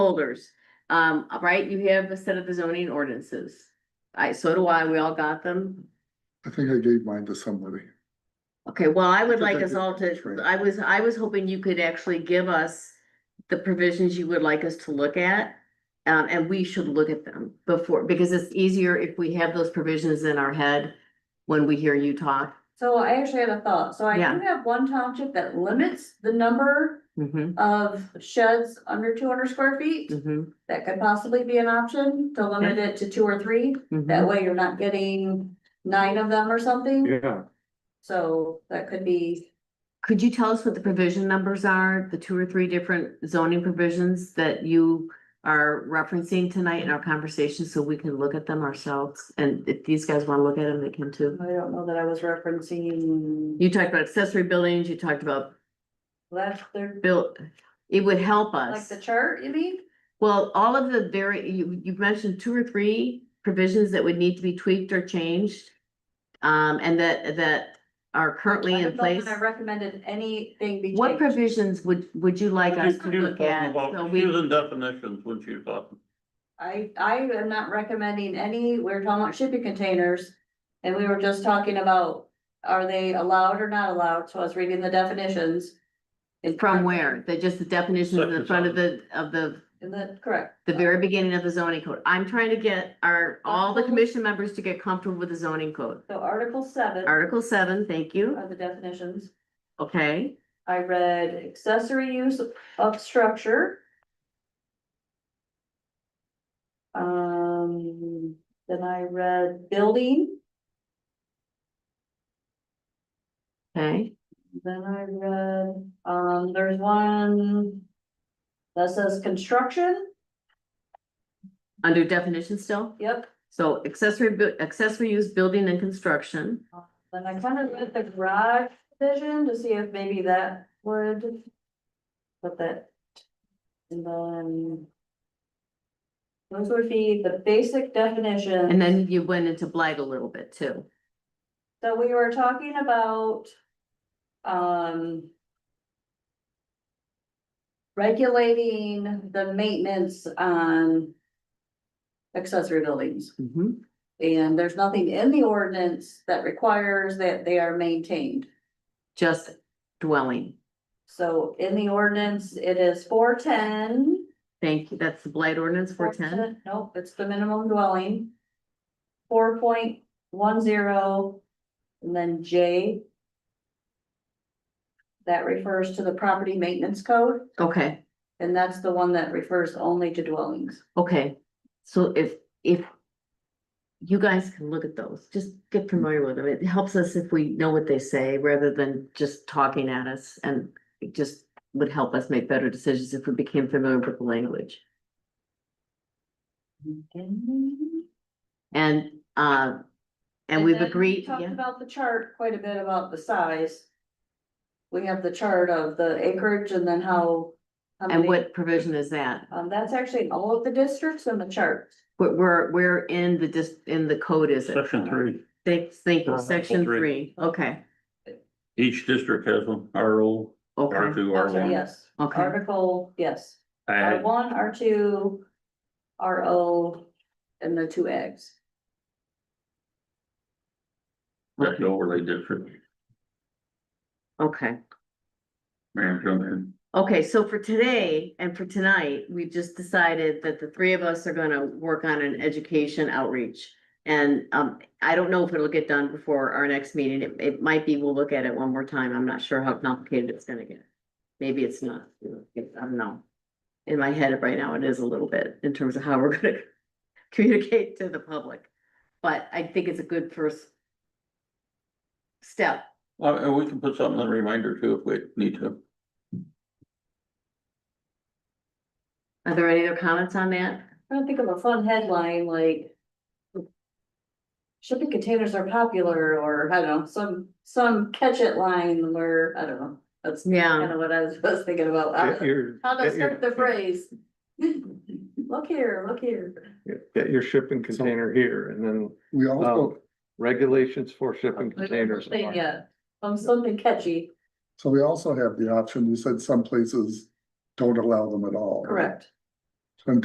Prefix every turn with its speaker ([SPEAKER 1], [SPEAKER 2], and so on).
[SPEAKER 1] folders. Um, right, you have a set of the zoning ordinances. I, so do I, we all got them.
[SPEAKER 2] I think I gave mine to somebody.
[SPEAKER 1] Okay, well, I would
[SPEAKER 2] I think
[SPEAKER 1] like
[SPEAKER 2] I
[SPEAKER 1] us
[SPEAKER 2] did.
[SPEAKER 1] all
[SPEAKER 2] That's right.
[SPEAKER 1] to, I was, I was hoping you could actually give us the provisions you would like us to look at. Um, and we should look at them before, because it's easier if we have those provisions in our head when we hear you talk.
[SPEAKER 3] So I actually had a thought, so I do
[SPEAKER 1] Yeah.
[SPEAKER 3] have one township that limits the number
[SPEAKER 1] Mhm,
[SPEAKER 3] of sheds under two hundred square feet.
[SPEAKER 1] mhm,
[SPEAKER 3] That could possibly be an option to limit it to two or three,
[SPEAKER 1] mhm.
[SPEAKER 3] that way you're not getting nine of them or something,
[SPEAKER 2] Yeah.
[SPEAKER 3] so that could be.
[SPEAKER 1] Could you tell us what the provision numbers are, the two or three different zoning provisions that you are referencing tonight in our conversation, so we can look at them ourselves? And if these guys wanna look at them, they can too.
[SPEAKER 3] I don't know that I was referencing.
[SPEAKER 1] You talked about accessory buildings, you talked about
[SPEAKER 3] That's their,
[SPEAKER 1] built, it would help
[SPEAKER 3] like
[SPEAKER 1] us.
[SPEAKER 3] the chart, you mean?
[SPEAKER 1] Well, all of the very, you, you've mentioned two or three provisions that would need to be tweaked or changed. Um, and that, that are currently
[SPEAKER 3] I
[SPEAKER 1] in
[SPEAKER 3] don't know
[SPEAKER 1] place.
[SPEAKER 3] that I recommended anything be
[SPEAKER 1] What
[SPEAKER 3] changed.
[SPEAKER 1] provisions would, would you like us to look at? So we-
[SPEAKER 4] Using definitions, what you thought.
[SPEAKER 3] I, I am not recommending any, we were talking about shipping containers. And we were just talking about, are they allowed or not allowed, so I was reading the definitions. In-
[SPEAKER 1] From where? That just the definition in the
[SPEAKER 4] Section
[SPEAKER 1] front of the, of the,
[SPEAKER 3] In the, correct.
[SPEAKER 1] the very beginning of the zoning code. I'm trying to get our, all the
[SPEAKER 3] Article-
[SPEAKER 1] commission members to get comfortable with the zoning code.
[SPEAKER 3] So article seven are
[SPEAKER 1] Article seven, thank you.
[SPEAKER 3] the definitions,
[SPEAKER 1] Okay,
[SPEAKER 3] I read accessory use of structure. Um, then I read building,
[SPEAKER 1] okay.
[SPEAKER 3] then I read, um, there's one. That says construction,
[SPEAKER 1] Under definition still?
[SPEAKER 3] yep,
[SPEAKER 1] So accessory, bu- accessory use building and construction.
[SPEAKER 3] Then I kind of looked at the garage vision to see if maybe that would. Put that. And then. Those would be the basic definition.
[SPEAKER 1] And then you went into blight a little bit too.
[SPEAKER 3] So we were talking about. Um. Regulating the maintenance on. Accessory buildings,
[SPEAKER 1] Mhm.
[SPEAKER 3] and there's nothing in the ordinance that requires that they are maintained.
[SPEAKER 1] Just dwelling.
[SPEAKER 3] So in the ordinance, it is four ten.
[SPEAKER 1] Thank you. That's the blight ordinance four ten.
[SPEAKER 3] Nope, it's the minimum dwelling. Four point one zero, and then J. That refers to the property maintenance code,
[SPEAKER 1] Okay,
[SPEAKER 3] and that's the one that refers only to dwellings.
[SPEAKER 1] okay. So if, if you guys can look at those, just get familiar with them. It helps us if we know what they say rather than just talking at us. And it just would help us make better decisions if we became familiar with the language. And, uh, and we've
[SPEAKER 3] then we
[SPEAKER 1] agreed,
[SPEAKER 3] Talked
[SPEAKER 1] yeah.
[SPEAKER 3] about the chart quite a bit about the size. We have the chart of the acreage and then how. how
[SPEAKER 1] And
[SPEAKER 3] many-
[SPEAKER 1] what provision is that?
[SPEAKER 3] Um, that's actually in all of the districts in the chart.
[SPEAKER 1] Where, where, where in the dis, in the code is it?
[SPEAKER 4] Section three,
[SPEAKER 1] Thank, thank you,
[SPEAKER 4] Uh,
[SPEAKER 1] section
[SPEAKER 4] three.
[SPEAKER 1] three, okay,
[SPEAKER 4] each district has one, R O, R
[SPEAKER 1] okay,
[SPEAKER 4] two, R
[SPEAKER 3] Oh, sorry,
[SPEAKER 4] one.
[SPEAKER 3] Yes,
[SPEAKER 1] okay,
[SPEAKER 3] article, yes, R
[SPEAKER 4] Ag,
[SPEAKER 3] one, R two, R O, and the two eggs.
[SPEAKER 4] that's the overlay district,
[SPEAKER 1] okay.
[SPEAKER 4] Marion Junction.
[SPEAKER 1] Okay, so for today and for tonight, we just decided that the three of us are gonna work on an education outreach. And um, I don't know if it'll get done before our next meeting. It, it might be, we'll look at it one more time. I'm not sure how complicated it's gonna get. Maybe it's not, I don't know. In my head right now, it is a little bit in terms of how we're gonna communicate to the public. But I think it's a good first step.
[SPEAKER 4] Uh, and we can put something in the reminder too if we need to.
[SPEAKER 1] Are there any other comments on that?
[SPEAKER 3] I don't think of a fun headline like. Shipping containers are popular, or I don't know, some, some catch it line where, I don't know, that's
[SPEAKER 1] Yeah.
[SPEAKER 3] kind of what I was was thinking about. How
[SPEAKER 5] Get
[SPEAKER 3] to-
[SPEAKER 5] your,
[SPEAKER 3] Uh, How to
[SPEAKER 5] get your-
[SPEAKER 3] start the phrase. Look here, look here.
[SPEAKER 5] get your shipping container here and then
[SPEAKER 2] We
[SPEAKER 4] Oh.
[SPEAKER 5] Oh.
[SPEAKER 2] also,
[SPEAKER 5] regulations for
[SPEAKER 3] Oh,
[SPEAKER 5] shipping containers. are-
[SPEAKER 3] Yeah, um, something catchy,
[SPEAKER 2] so we also have the option, you said some places don't allow them at all.
[SPEAKER 3] correct.